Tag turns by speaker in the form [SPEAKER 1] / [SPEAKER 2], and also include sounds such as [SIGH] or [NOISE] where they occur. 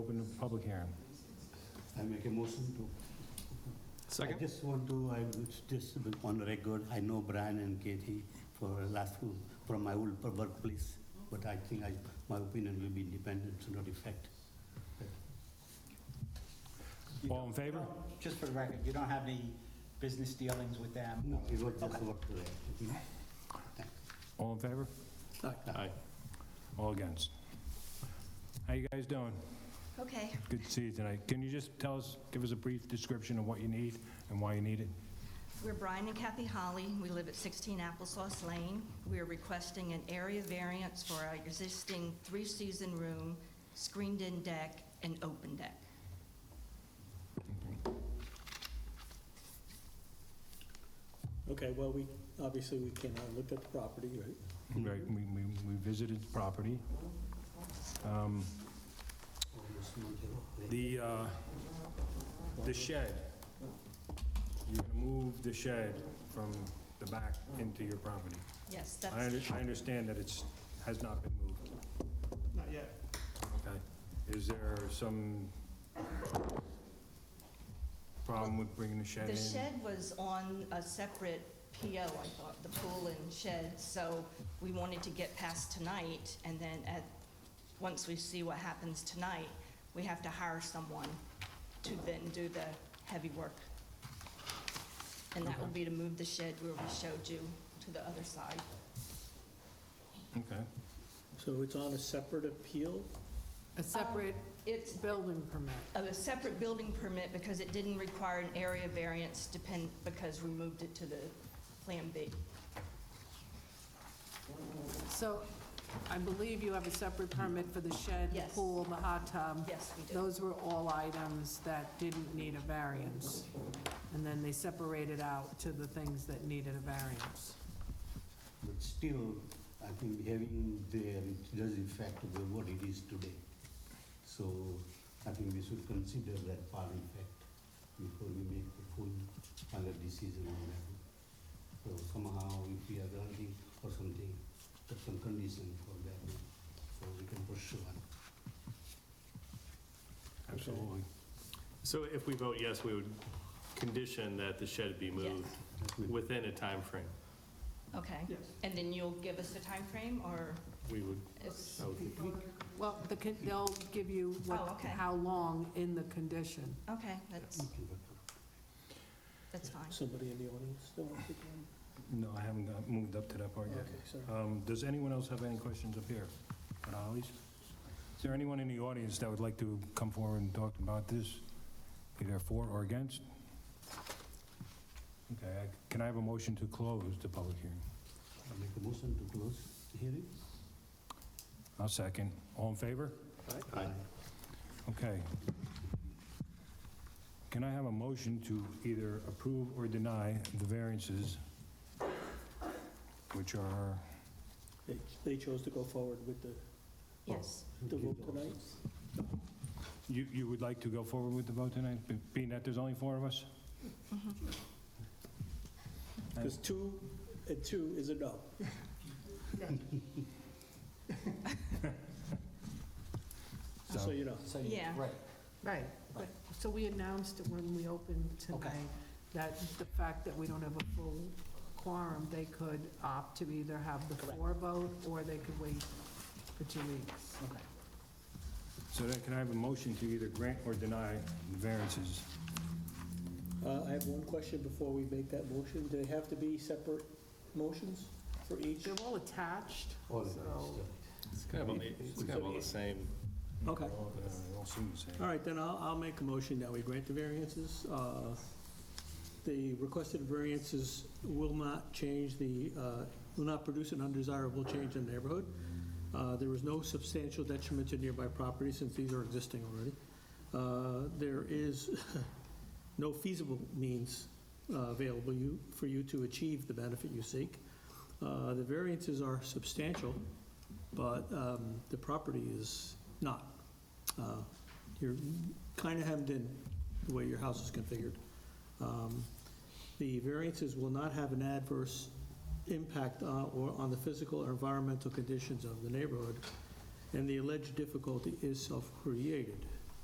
[SPEAKER 1] Open the public hearing.
[SPEAKER 2] I make a motion to. I
[SPEAKER 3] Second?
[SPEAKER 2] just want to, I was just on the record, I know Brian and Katie for last, few- from my old workplace, but I think I, my opinion will be independent, so not effect.
[SPEAKER 1] All in favor?
[SPEAKER 4] Just for the record, you don't have any business dealings with them?
[SPEAKER 2] No, it was just work today.
[SPEAKER 1] All in favor?
[SPEAKER 2] Hmm?
[SPEAKER 3] Aye.
[SPEAKER 1] All against? How you guys doing?
[SPEAKER 5] Okay,
[SPEAKER 1] Good to see you tonight. Can you just tell us, give us a brief description of what you need and why you need it?
[SPEAKER 5] we're Brian and Kathy Holly. We live at 16 Applesauce Lane. We are requesting an area variance for our existing three-season room, screened-in deck, and open deck.
[SPEAKER 6] Okay, well, we, obviously, we came out and looked at the property, right?
[SPEAKER 1] Right, we, we we visited the property. Um, The, uh, the shed, you're gonna move the shed from the back into your property.
[SPEAKER 5] Yes,
[SPEAKER 1] I,
[SPEAKER 5] that's,
[SPEAKER 1] under- I understand that it's, has not been moved.
[SPEAKER 6] Not yet.
[SPEAKER 1] Okay. Is there some problem with bringing the shed in?
[SPEAKER 5] the shed was on a separate PO, I thought, the pool and shed, so we wanted to get past tonight, and then at, once we see what happens tonight, we have to hire someone to then do the heavy work. And that will be to move the shed where we showed you to the other side.
[SPEAKER 1] Okay.
[SPEAKER 6] So it's on a separate appeal?
[SPEAKER 7] A separate
[SPEAKER 5] It's
[SPEAKER 7] building permit.
[SPEAKER 5] a separate building permit because it didn't require an area variance depend, because we moved it to the Plan B.
[SPEAKER 7] So I believe you have a separate permit for the shed, the
[SPEAKER 5] Yes.
[SPEAKER 7] pool, the hot tub.
[SPEAKER 5] Yes, we do.
[SPEAKER 7] Those were all items that didn't need a variance. And then they separated out to the things that needed a variance.
[SPEAKER 2] But still, I think having there, it does affect the what it is today. So I think we should consider that part in fact before we make the full final decision on that. So somehow if we are granting or something, there's some condition for that, so we can pursue it.
[SPEAKER 1] Absolutely.
[SPEAKER 3] So if we vote yes, we would condition that the shed be moved within a time frame.
[SPEAKER 5] Okay.
[SPEAKER 6] Yes.
[SPEAKER 5] And then you'll give us a time frame, or
[SPEAKER 3] We would,
[SPEAKER 5] it's,
[SPEAKER 3] I would think-
[SPEAKER 7] Well, the con- they'll give you
[SPEAKER 5] Oh,
[SPEAKER 7] what,
[SPEAKER 5] okay.
[SPEAKER 7] how long in the condition.
[SPEAKER 5] okay, that's,
[SPEAKER 2] We can work on it.
[SPEAKER 5] that's fine.
[SPEAKER 6] Somebody in the audience still wants to come?
[SPEAKER 1] No, I haven't got- moved up to that part yet.
[SPEAKER 6] Okay, sorry.
[SPEAKER 1] Um, Does anyone else have any questions up here at Ollie's? Is there anyone in the audience that would like to come forward and talk about this, either for or against? Okay, I- can I have a motion to close the public hearing?
[SPEAKER 2] I make a motion to close the hearing.
[SPEAKER 1] I'll second. All in favor?
[SPEAKER 3] Aye.
[SPEAKER 1] Okay. Can I have a motion to either approve or deny the variances, which are,
[SPEAKER 6] They, they chose to go forward with the,
[SPEAKER 5] Yes.
[SPEAKER 6] the vote tonight?
[SPEAKER 1] you, you would like to go forward with the vote tonight, be- being that there's only four of us?
[SPEAKER 6] Because two, a two is a
[SPEAKER 3] [LAUGHS]
[SPEAKER 6] no. Just so you know.
[SPEAKER 4] So you-
[SPEAKER 5] Yeah.
[SPEAKER 4] Right.
[SPEAKER 7] Right, but, so we announced it when we opened tonight, that the fact that we don't have a full quorum, they could opt to either have the
[SPEAKER 4] Correct.
[SPEAKER 7] four vote, or they could wait for two weeks.
[SPEAKER 4] Okay.
[SPEAKER 1] So then can I have a motion to either grant or deny the variances?
[SPEAKER 6] Uh, I have one question before we make that motion. Do they have to be separate motions for each?
[SPEAKER 7] They're all attached,
[SPEAKER 2] All right,
[SPEAKER 7] so
[SPEAKER 3] It's kind of all the- it's kind of all the same.
[SPEAKER 6] Okay.
[SPEAKER 1] They're all- they're uh, all seem the same.
[SPEAKER 6] All right, then I'll, I'll make a motion that we grant the variances. Uh, The requested variances will not change the, uh, will not produce an undesirable change in the neighborhood. Uh, There is no substantial detriment to nearby property since these are existing already. Uh, There is [LAUGHS] no feasible means uh, available you, for you to achieve the benefit you seek. Uh, The variances are substantial, but um, the property is not. Uh, you're kind of hemmed in the way your house is configured. Um, The variances will not have an adverse impact on, or on the physical or environmental conditions of the neighborhood, and the alleged difficulty is self-created.